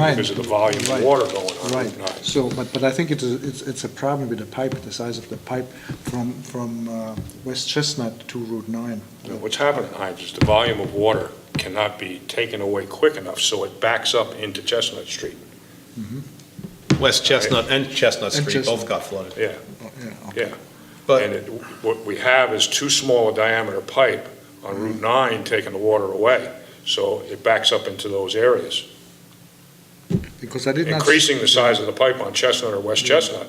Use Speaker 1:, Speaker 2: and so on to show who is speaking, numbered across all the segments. Speaker 1: Right.
Speaker 2: because of the volume of
Speaker 1: Right.
Speaker 2: water going on.
Speaker 1: Right,
Speaker 2: overnight.
Speaker 1: so, but, but I think it's, a- it's, it's a problem with the pipe, the size of the pipe from, from uh, West Chestnut to Route 9.
Speaker 2: You know, What's happening, Heinz, is the volume of water cannot be taken away quick enough, so it backs up into Chestnut Street.
Speaker 3: West Chestnut and Chestnut
Speaker 1: And
Speaker 3: Street both
Speaker 1: Chestnut.
Speaker 3: got flooded.
Speaker 2: Yeah,
Speaker 1: Oh, yeah, okay.
Speaker 2: yeah. And
Speaker 3: But,
Speaker 2: it- what we have is too small a diameter pipe on Route 9 taking the water away, so it backs up into those areas.
Speaker 1: Because I did not.
Speaker 2: Increasing the size of the pipe on Chestnut or West Chestnut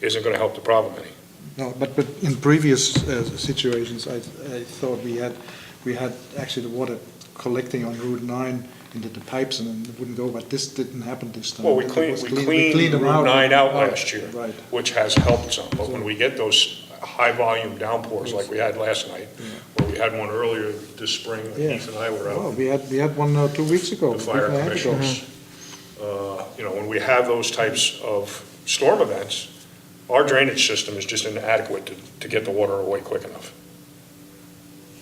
Speaker 2: isn't going to help the problem any.
Speaker 1: No, but, but in previous uh, situations, I, I thought we had, we had actually the water collecting on Route 9 into the pipes and then it wouldn't go, but this didn't happen this time.
Speaker 2: Well, we
Speaker 1: It
Speaker 2: cleaned,
Speaker 1: was
Speaker 2: we
Speaker 1: clean-
Speaker 2: cleaned
Speaker 1: them
Speaker 2: Route 9 out
Speaker 1: Right,
Speaker 2: last year,
Speaker 1: Right,
Speaker 2: which has helped some, but when we get those high-volume downpours like we had last night, or we had one earlier this spring, when
Speaker 1: Yeah.
Speaker 2: Heath and I were
Speaker 1: oh,
Speaker 2: out,
Speaker 1: we had, we had one uh, two weeks ago.
Speaker 2: the
Speaker 1: week
Speaker 2: fire
Speaker 1: and a half ago.
Speaker 2: commissioners, uh, you know, when we have those types of storm events, our drainage system is just inadequate to, to get the water away quick enough.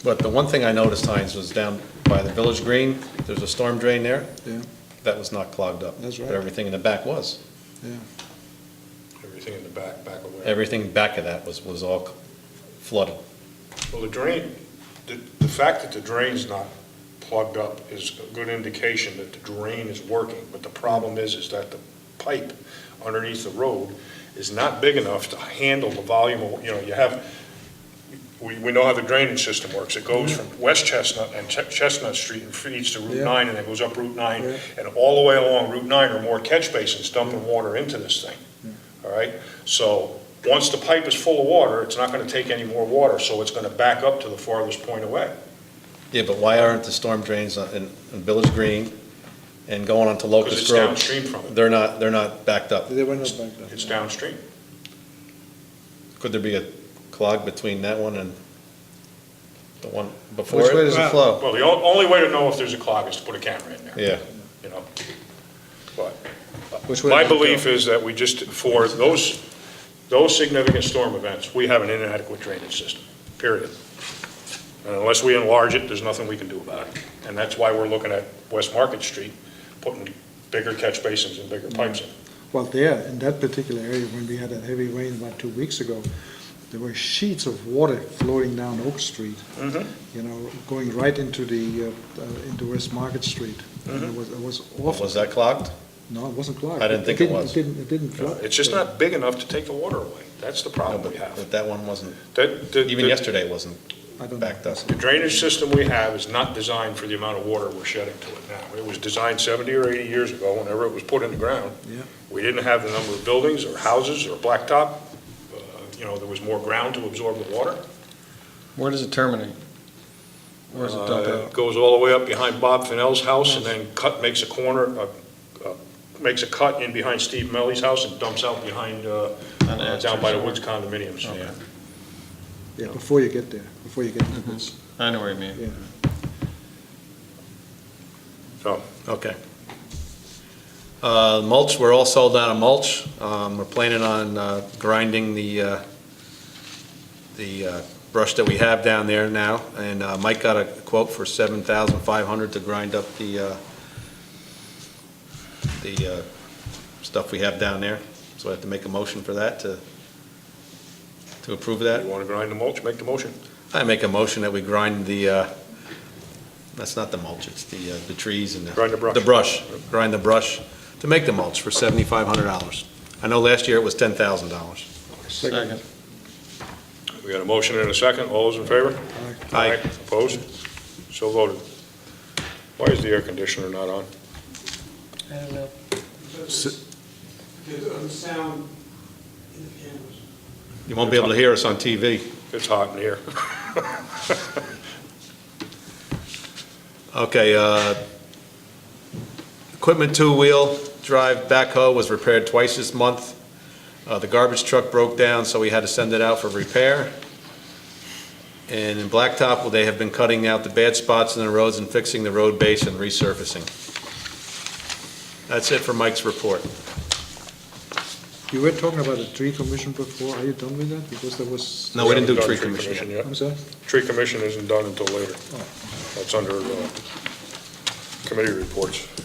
Speaker 3: but the one thing I noticed, Heinz, was down by the village green, there's a storm drain there.
Speaker 1: Yeah.
Speaker 3: That was not clogged up.
Speaker 1: That's right.
Speaker 3: But everything in the back was.
Speaker 2: Everything in the back, back away.
Speaker 3: Everything back of that was, was all flooded.
Speaker 2: Well, the drain, the, the fact that the drain's not plugged up is a good indication that the drain is working, but the problem is, is that the pipe underneath the road is not big enough to handle the volume of, you know, you have, we, we know how the drainage system works. It goes from West Chestnut and Ch- Chestnut Street and feeds to Route
Speaker 1: Yeah.
Speaker 2: nine, and then goes up Route nine,
Speaker 1: Yeah.
Speaker 2: and all the way along Route nine are more catch basins dumping water into this thing, all right? So once the pipe is full of water, it's not gonna take any more water, so it's gonna back up to the farthest point away.
Speaker 3: Yeah, but why aren't the storm drains on- in, in village green and going onto
Speaker 2: Because
Speaker 3: Locust
Speaker 2: it's
Speaker 3: Grove?
Speaker 2: downstream from it,
Speaker 3: They're not, they're not backed up.
Speaker 1: They were not back then.
Speaker 2: it's downstream.
Speaker 3: Could there be a clog between that one and the one before it?
Speaker 1: Which way does it flow?
Speaker 2: Well, the o- only way to know if there's a clog is to put a camera in there,
Speaker 3: Yeah.
Speaker 2: you know? But
Speaker 1: Which way
Speaker 2: my
Speaker 1: did it go?
Speaker 2: belief is that we just, for those, those significant storm events, we have an inadequate drainage system, period. And unless we enlarge it, there's nothing we can do about it. And that's why we're looking at West Market Street, putting bigger catch basins and bigger pipes in.
Speaker 1: Well, there, in that particular area, when we had that heavy rain about two weeks ago, there were sheets of water floating down Oak Street,
Speaker 2: Mm-hmm.
Speaker 1: you know, going right into the, uh, uh, into West Market Street. And
Speaker 2: Mm-hmm.
Speaker 1: it was, it was awful.
Speaker 3: Was that clogged?
Speaker 1: No, it wasn't clogged.
Speaker 3: I didn't think it
Speaker 1: didn't-
Speaker 3: was.
Speaker 1: It didn't, it didn't flood.
Speaker 2: It's just not big enough to take the water away. That's the
Speaker 3: No,
Speaker 2: problem
Speaker 3: but
Speaker 2: we have.
Speaker 3: but that one wasn't,
Speaker 2: That- the-
Speaker 3: even
Speaker 2: the-
Speaker 3: yesterday it wasn't
Speaker 1: I don't know.
Speaker 3: backed up.
Speaker 2: The drainage system we have is not designed for the amount of water we're shedding to it now. It was designed 70 or 80 years ago, whenever it was put in the ground.
Speaker 1: Yeah.
Speaker 2: We didn't have the number of buildings or houses or blacktop. Uh, You know, there was more ground to absorb the water.
Speaker 4: Where does it terminate? Where does it dump
Speaker 2: Uh,
Speaker 4: out?
Speaker 2: It Goes all the way up behind Bob Fennell's house and then cut, makes a corner, uh, uh, makes a cut in behind Steve Melly's house and dumps out behind, uh,
Speaker 4: On
Speaker 2: uh, down
Speaker 4: Astor
Speaker 2: by the
Speaker 4: Shore.
Speaker 2: Woods condominiums.
Speaker 4: Okay.
Speaker 1: Yeah, before you get there, before you get to this.
Speaker 3: Mm-hmm.
Speaker 4: I know where you mean.
Speaker 1: Yeah.
Speaker 3: Okay. Uh, Mulch, we're all sold out of mulch. Um, We're planning on uh, grinding the, uh, the uh, brush that we have down there now, and uh, Mike got a quote for $7,500 to grind up the, uh, the uh, stuff we have down there. So I have to make a motion for that to, to approve that.
Speaker 2: You want to grind the mulch, make the motion.
Speaker 3: I make a motion that we grind the, uh, that's not the mulch, it's the, uh, the trees and the.
Speaker 2: Grind the brush.
Speaker 3: The brush, grind the brush to make the mulch for seventy-five hundred dollars. I know last year it was ten thousand dollars.
Speaker 4: Second.
Speaker 2: We got a motion and a second. All those in favor?
Speaker 3: Aye.
Speaker 2: Opposed? So voted. Why is the air conditioner not on?
Speaker 5: I don't know.
Speaker 6: There's um, sound in the cameras.
Speaker 3: You won't be able to hear us on TV.
Speaker 2: It's hot in here.
Speaker 3: Okay, uh, equipment two-wheel drive backhoe was repaired twice this month. Uh, The garbage truck broke down, so we had to send it out for repair. And in Blacktop, well, they have been cutting out the bad spots in the roads and fixing the road base and resurfacing. That's it for Mike's report.
Speaker 1: You were talking about a tree commission before. Are you done with that? Because there was.
Speaker 3: No, we didn't do
Speaker 2: Haven't
Speaker 3: tree
Speaker 2: done
Speaker 3: commission yet.
Speaker 1: I'm sorry?
Speaker 2: Tree commission isn't done until later. That's under uh, committee reports.